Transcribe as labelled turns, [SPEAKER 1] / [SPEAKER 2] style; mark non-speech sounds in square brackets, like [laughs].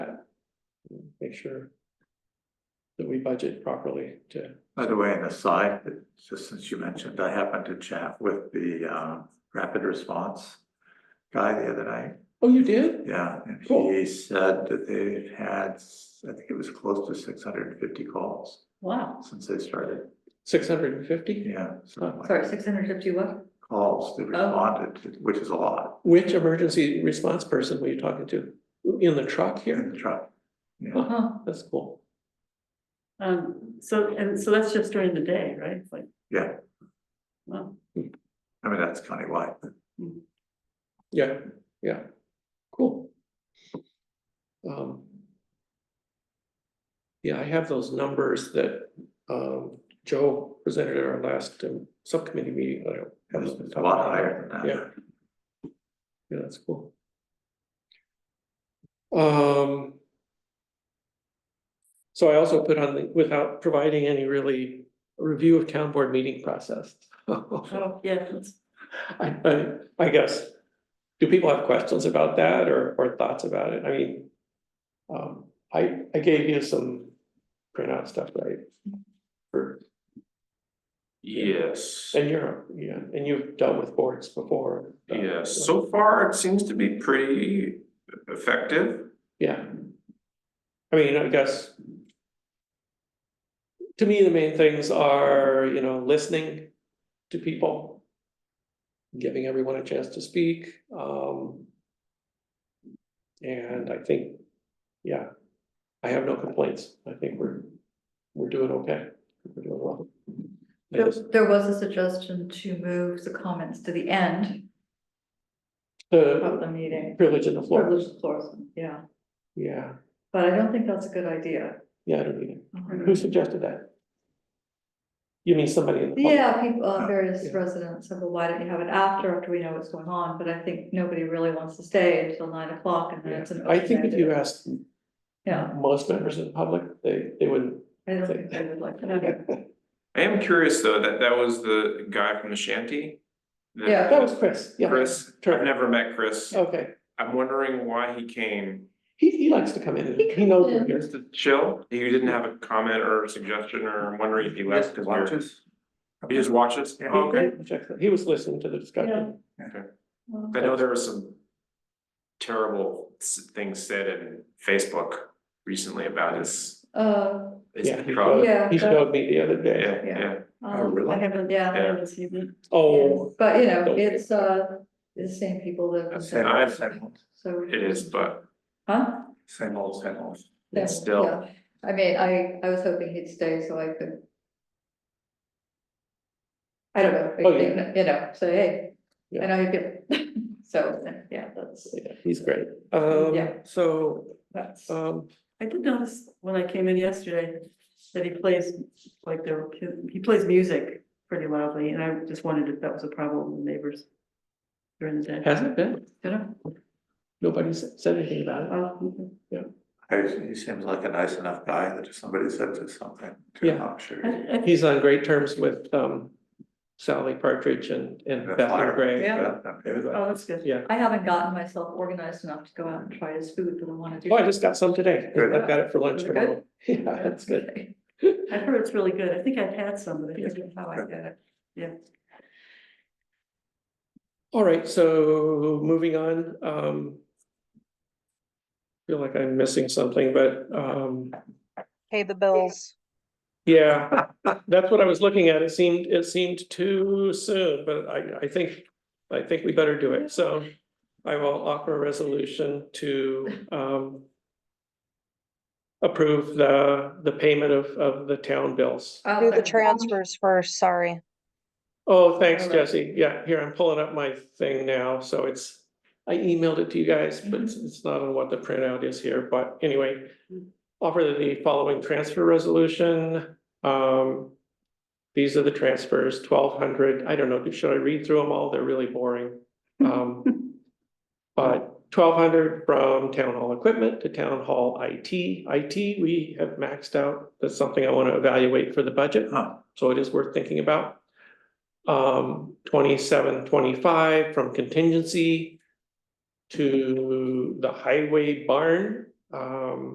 [SPEAKER 1] make sure that we budget properly to,
[SPEAKER 2] By the way, an aside, just since you mentioned, I happened to chat with the um rapid response guy the other night.
[SPEAKER 1] oh, you did?
[SPEAKER 2] Yeah, and
[SPEAKER 1] Cool.
[SPEAKER 2] he said that they've had, I think it was close to six hundred and fifty calls
[SPEAKER 3] Wow,
[SPEAKER 2] since they started.
[SPEAKER 1] Six hundred and fifty?
[SPEAKER 2] Yeah,
[SPEAKER 1] Oh,
[SPEAKER 2] something like
[SPEAKER 3] sorry, six hundred fifty what? [laughs]
[SPEAKER 2] calls that responded, to- which is a lot
[SPEAKER 1] Which emergency response person were you talking to? In the truck
[SPEAKER 2] in
[SPEAKER 1] here?
[SPEAKER 2] the truck. Yeah,
[SPEAKER 3] Huh,
[SPEAKER 1] That's cool.
[SPEAKER 3] um, so, and so that's just during the day, right? It's like,
[SPEAKER 2] yeah,
[SPEAKER 3] wow.
[SPEAKER 2] I mean, that's countywide. but
[SPEAKER 1] Yeah, yeah, cool. Um. Yeah, I have those numbers that um Joe presented at our last um, subcommittee meeting. I don't have
[SPEAKER 2] It's
[SPEAKER 1] them
[SPEAKER 2] it's a lot higher than
[SPEAKER 1] Yeah.
[SPEAKER 2] that.
[SPEAKER 1] Yeah, that's cool. Um. So I also put on the, without providing any really review of town board meeting process. [laughs]
[SPEAKER 3] Oh, yeah, that's,
[SPEAKER 1] I, I, I guess, do people have questions about that or, or thoughts about it? I mean. Um, I, I gave you some printout stuff, right? For,
[SPEAKER 4] Yes,
[SPEAKER 1] and you're, yeah, and you've dealt with boards before. uh,
[SPEAKER 4] yeah, so far it seems to be pretty effective.
[SPEAKER 1] Yeah. I mean, I guess. To me, the main things are, you know, listening to people. Giving everyone a chance to speak, um. And I think, yeah, I have no complaints. I think we're, we're doing okay. We're doing well. I
[SPEAKER 3] there,
[SPEAKER 1] just-
[SPEAKER 3] there was a suggestion to move the comments to the end of
[SPEAKER 1] The
[SPEAKER 3] the meeting.
[SPEAKER 1] privilege in the
[SPEAKER 3] Or
[SPEAKER 1] floor,
[SPEAKER 3] Lucius Lawson, yeah,
[SPEAKER 1] yeah,
[SPEAKER 3] but I don't think that's a good idea.
[SPEAKER 1] yeah, I don't either. Who suggested that? You mean somebody in the public?
[SPEAKER 3] Yeah, people, uh, various
[SPEAKER 1] Yeah.
[SPEAKER 3] residents said, well, why don't you have it after, after we know what's going on, but I think nobody really wants to stay until nine o'clock and then it's an.
[SPEAKER 1] I think if you
[SPEAKER 3] open-ended-
[SPEAKER 1] ask
[SPEAKER 3] Yeah,
[SPEAKER 1] most members of the public, they, they wouldn't.
[SPEAKER 3] I don't think they would like that.
[SPEAKER 4] I am curious though, that that was the guy from the shanty? The-
[SPEAKER 3] Yeah.
[SPEAKER 1] That was Oh. Chris, yeah.
[SPEAKER 4] Chris, I've
[SPEAKER 1] Turner.
[SPEAKER 4] never met Chris.
[SPEAKER 1] Okay,
[SPEAKER 4] I'm wondering why he came.
[SPEAKER 1] he, he likes to come in, and
[SPEAKER 3] He
[SPEAKER 1] he knows
[SPEAKER 3] comes
[SPEAKER 1] we're
[SPEAKER 3] in.
[SPEAKER 1] here.
[SPEAKER 4] Just to chill, he didn't have a comment or suggestion or I'm wondering if he left because we were.
[SPEAKER 2] Watches.
[SPEAKER 4] He just watches?
[SPEAKER 2] Yeah.
[SPEAKER 4] Oh, Okay,
[SPEAKER 1] He checks it. He was listening to the discussion.
[SPEAKER 3] Well,
[SPEAKER 4] I know there were some terrible s- things said in Facebook recently about his.
[SPEAKER 3] Uh,
[SPEAKER 4] his
[SPEAKER 1] Yeah, he
[SPEAKER 4] product.
[SPEAKER 1] showed,
[SPEAKER 3] Yeah.
[SPEAKER 1] he showed me the other day.
[SPEAKER 4] Yeah, yeah.
[SPEAKER 2] Oh,
[SPEAKER 3] um,
[SPEAKER 2] really?
[SPEAKER 3] I haven't, yeah, I
[SPEAKER 4] Yeah.
[SPEAKER 3] haven't seen it.
[SPEAKER 1] Oh,
[SPEAKER 3] But, you know,
[SPEAKER 1] Okay.
[SPEAKER 3] it's, uh, the same people that.
[SPEAKER 4] That's
[SPEAKER 2] Same old, same old,
[SPEAKER 3] So.
[SPEAKER 4] It is, but
[SPEAKER 3] Huh?
[SPEAKER 2] same old, same old.
[SPEAKER 3] Yeah,
[SPEAKER 4] still.
[SPEAKER 3] yeah. I mean, I, I was hoping he'd stay so I could. I don't know,
[SPEAKER 1] Oh,
[SPEAKER 3] you know- you know, say, hey,
[SPEAKER 1] Yeah.
[SPEAKER 3] I know you feel, [laughs] so, yeah, that's,
[SPEAKER 1] yeah, he's great. Um,
[SPEAKER 3] Yeah.
[SPEAKER 1] so,
[SPEAKER 3] that's.
[SPEAKER 1] um,
[SPEAKER 3] I did notice when I came in yesterday that he plays, like, there, he plays music pretty loudly, and I just wondered if that was a problem with neighbors during the day.
[SPEAKER 1] hasn't been,
[SPEAKER 3] You know?
[SPEAKER 1] nobody's said anything about it.
[SPEAKER 3] Oh,
[SPEAKER 2] I- He seems like a nice enough guy that if somebody said to something, to him,
[SPEAKER 1] Yeah.
[SPEAKER 2] I'm sure.
[SPEAKER 3] I- I-
[SPEAKER 1] He's on great terms with, um, Sally Partridge and, and
[SPEAKER 2] That's
[SPEAKER 1] Bethany
[SPEAKER 2] fire.
[SPEAKER 1] Gray.
[SPEAKER 3] Yeah.
[SPEAKER 2] Yeah.
[SPEAKER 3] oh, that's good.
[SPEAKER 1] Yeah.
[SPEAKER 3] I haven't gotten myself organized enough to go out and try his food, but I wanna do.
[SPEAKER 1] Oh, I
[SPEAKER 3] that.
[SPEAKER 1] just got some today.
[SPEAKER 2] Good.
[SPEAKER 1] I've got it for lunch
[SPEAKER 3] Good.
[SPEAKER 1] tomorrow. [laughs] Yeah, that's good.
[SPEAKER 3] Okay. I've heard it's really good. [laughs] I think I've had some, but I forget how I did it.
[SPEAKER 1] All right, so moving on, um. Feel like I'm missing something, but, um,
[SPEAKER 5] Pay the bills.
[SPEAKER 1] yeah, that's what I was looking at. It seemed, it seemed too soon, but I, I think. I think we better do it, so I will offer a resolution to, um. Approve the, the payment of, of the town bills.
[SPEAKER 3] I'll
[SPEAKER 5] Do the
[SPEAKER 3] second.
[SPEAKER 5] transfers first, sorry.
[SPEAKER 1] Oh, thanks,
[SPEAKER 3] All right.
[SPEAKER 1] Jesse. Yeah, here, I'm pulling up my thing now, so it's, I emailed it to you guys, but it's- it's not on what the printout is here, but anyway. Offer the following transfer resolution, um. These are the transfers, twelve hundred, I don't know, should I read through them all? They're really boring. Um. But twelve hundred from town hall equipment to town hall IT, IT, we have maxed out. That's something I want to evaluate for the budget.
[SPEAKER 2] Huh.
[SPEAKER 1] So it is worth thinking about. Um, twenty-seven, twenty-five from contingency to the highway barn, um.